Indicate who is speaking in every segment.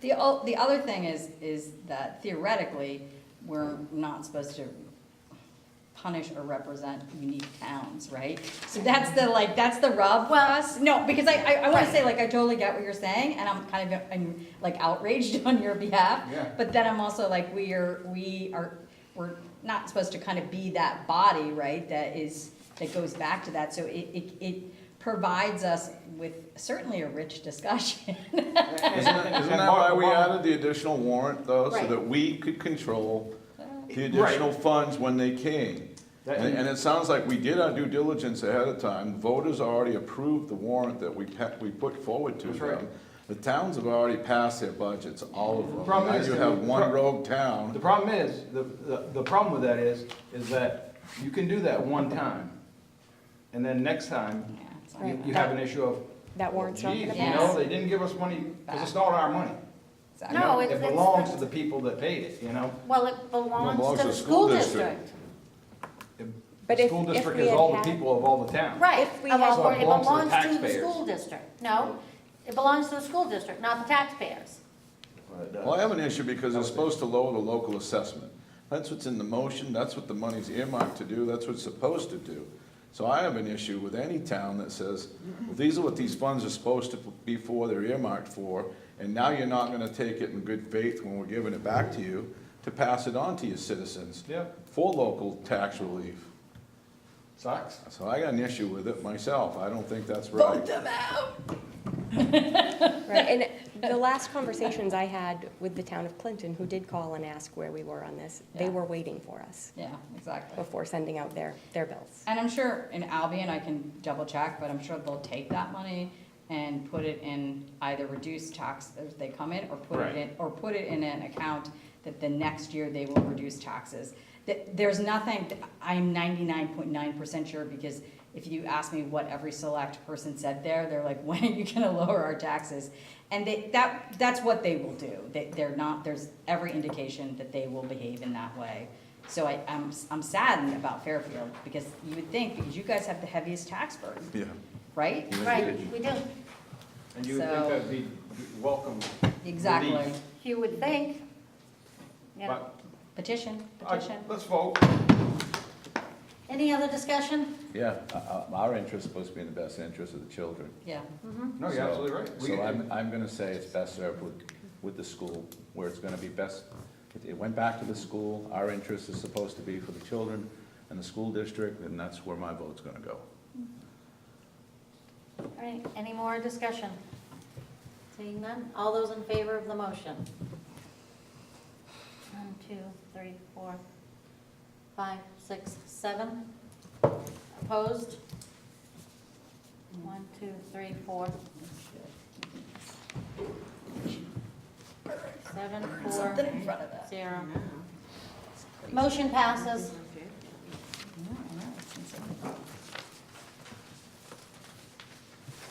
Speaker 1: The, o- the other thing is, is that theoretically, we're not supposed to punish or represent unique towns, right? So that's the, like, that's the rub for us, no, because I, I, I wanna say, like, I totally get what you're saying, and I'm kind of, I'm like outraged on your behalf.
Speaker 2: Yeah.
Speaker 1: But then I'm also like, we are, we are, we're not supposed to kind of be that body, right, that is, that goes back to that, so it, it, it provides us with certainly a rich discussion.
Speaker 3: Isn't that- isn't that why we added the additional warrant, though, so
Speaker 1: Right.
Speaker 3: that we could control the
Speaker 2: Right.
Speaker 3: additional funds when they came?
Speaker 2: That-
Speaker 3: And, and it sounds like we did our due diligence ahead of time, voters already approved the warrant that we pa, we put forward to
Speaker 2: That's right.
Speaker 3: them. The towns have already passed their budgets, all of them.
Speaker 2: problem
Speaker 3: Now
Speaker 2: is
Speaker 3: you
Speaker 2: that
Speaker 3: have
Speaker 2: we-
Speaker 3: one
Speaker 2: pro-
Speaker 3: rogue town.
Speaker 2: The problem is, the, the, the problem with that is, is that you can do that one time, and then next time,
Speaker 1: Yeah, it's not
Speaker 2: you,
Speaker 1: bad.
Speaker 2: you have an issue of,
Speaker 4: That warrant's not
Speaker 2: geez, you
Speaker 4: gonna
Speaker 1: Yeah.
Speaker 2: know,
Speaker 4: pass.
Speaker 2: they didn't give us money, because it's not our money.
Speaker 1: Exactly.
Speaker 2: you
Speaker 5: No,
Speaker 2: know?
Speaker 5: it's-
Speaker 2: It
Speaker 5: it's-
Speaker 2: belongs to the people that paid it, you know?
Speaker 5: Well, it belongs to the school district.
Speaker 2: The-
Speaker 4: But
Speaker 2: The
Speaker 4: if-
Speaker 2: school
Speaker 4: if
Speaker 2: district
Speaker 4: we
Speaker 2: is
Speaker 4: had
Speaker 2: all the
Speaker 4: had-
Speaker 2: people of all the town.
Speaker 5: Right,
Speaker 4: If we
Speaker 5: of
Speaker 4: had-
Speaker 5: all-
Speaker 2: So it
Speaker 5: it
Speaker 2: belongs to the
Speaker 5: belongs to the
Speaker 2: taxpayers.
Speaker 5: school district. No, it belongs to the school district, not the taxpayers.
Speaker 2: But,
Speaker 3: Well, I
Speaker 2: uh,
Speaker 3: have an issue because it's supposed to lower the local assessment. That's what's in the motion, that's what the money's earmarked to do, that's what it's supposed to do. So I have an issue with any town that says, well, these are what these funds are supposed to be for, they're earmarked for, and now you're not gonna take it in good faith when we're giving it back to you to pass it on to your citizens
Speaker 2: Yeah,
Speaker 3: for local tax relief.
Speaker 2: sucks.
Speaker 3: So I got an issue with it myself, I don't think that's right.
Speaker 4: Right, and the last conversations I had with the town of Clinton, who did call and ask where we were on this, they
Speaker 1: Yeah.
Speaker 4: were waiting for us
Speaker 1: Yeah, exactly.
Speaker 4: before sending out their, their bills.
Speaker 1: And I'm sure in Albion, I can double check, but I'm sure they'll take that money and put it in either reduced tax as they come in, or put it
Speaker 2: Right.
Speaker 1: in, or put it in an account that the next year they will reduce taxes. That, there's nothing, I'm ninety-nine point nine percent sure, because if you ask me what every select person said there, they're like, when are you gonna lower our taxes? And they, that, that's what they will do. They, they're not, there's every indication that they will behave in that way. So I, I'm, I'm saddened about Fairfield, because you would think, because you guys have the heaviest tax burden,
Speaker 3: Yeah.
Speaker 1: right?
Speaker 5: Right, we do.
Speaker 2: And you would think
Speaker 1: So-
Speaker 2: that'd be welcome.
Speaker 1: Exactly.
Speaker 2: relief,
Speaker 5: You would think. Yeah.
Speaker 2: But,
Speaker 1: Petition,
Speaker 2: uh,
Speaker 1: petition.
Speaker 2: let's vote.
Speaker 5: Any other discussion?
Speaker 3: Yeah, Uh, our interest is supposed to be in the best interest of the children.
Speaker 1: Yeah,
Speaker 2: No, you're
Speaker 3: So-
Speaker 2: absolutely right. We-
Speaker 3: So I'm, I'm gonna say it's best served with, with the school, where it's gonna be best, it- it went back to the school, our interest is supposed to be for the children and the school district, and that's where my vote's gonna go.
Speaker 5: All right, any more discussion? Seeing none, all those in favor of the motion? One, two, three, four, five, six, seven. Opposed? One, two, three, four. Seven, four,
Speaker 1: something in front of that.
Speaker 5: zero. Motion passes.
Speaker 1: Yeah, I know, it's insane.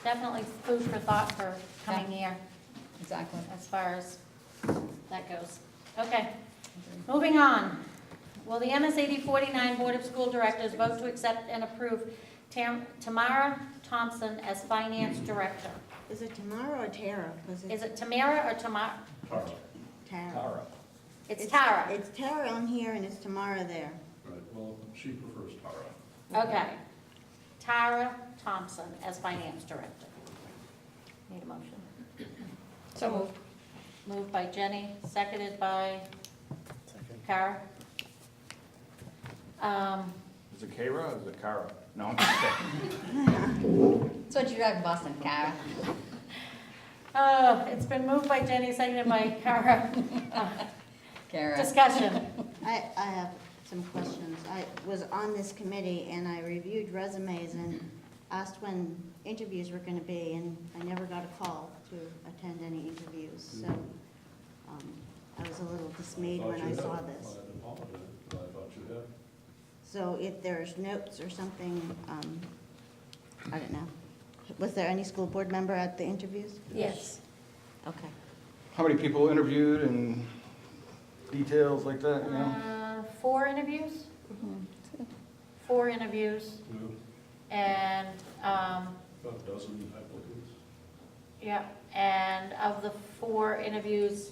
Speaker 5: Definitely food for thought for coming year.
Speaker 1: Exactly.
Speaker 5: as far as that goes. Okay, moving on. Will the MS eighty forty-nine Board of School Directors vote to accept and approve Tam- Tamara Thompson as Finance Director?
Speaker 6: Is it Tamara or Tara? 'Cause
Speaker 5: Is
Speaker 6: it's
Speaker 5: it Tamara or Tamara?
Speaker 6: Tara.
Speaker 5: It's Tara.
Speaker 6: It's Tara on here and it's Tamara there.
Speaker 7: Right, well, she prefers Tara.
Speaker 5: Okay. Tara Thompson as Finance Director. Need a motion?
Speaker 4: So moved.
Speaker 5: Moved by Jenny, seconded by Kara. Um,
Speaker 2: Is it Kara or is it Kara? No, I'm just kidding.
Speaker 1: That's what you drive in Boston, Kara.
Speaker 5: Oh, it's been moved by Jenny, seconded by Kara.
Speaker 1: Kara.
Speaker 5: Discussion.
Speaker 6: I, I have some questions. I was on this committee and I reviewed resumes and asked when interviews were gonna be and I never got a call to attend any interviews, so, um, I was a little dismayed when I saw this.
Speaker 7: I apologize, but I thought you had.
Speaker 6: So if there's notes or something, um, I don't know. Was there any school board member at the interviews?
Speaker 5: Yes.
Speaker 6: Okay.
Speaker 2: How many people interviewed and details like that, you know?
Speaker 5: Uh, Four interviews?
Speaker 4: Mm-hmm.
Speaker 5: Four interviews,
Speaker 7: No,
Speaker 5: and, um,
Speaker 7: About a dozen applicants.
Speaker 5: yeah, Yep. And of the four interviews,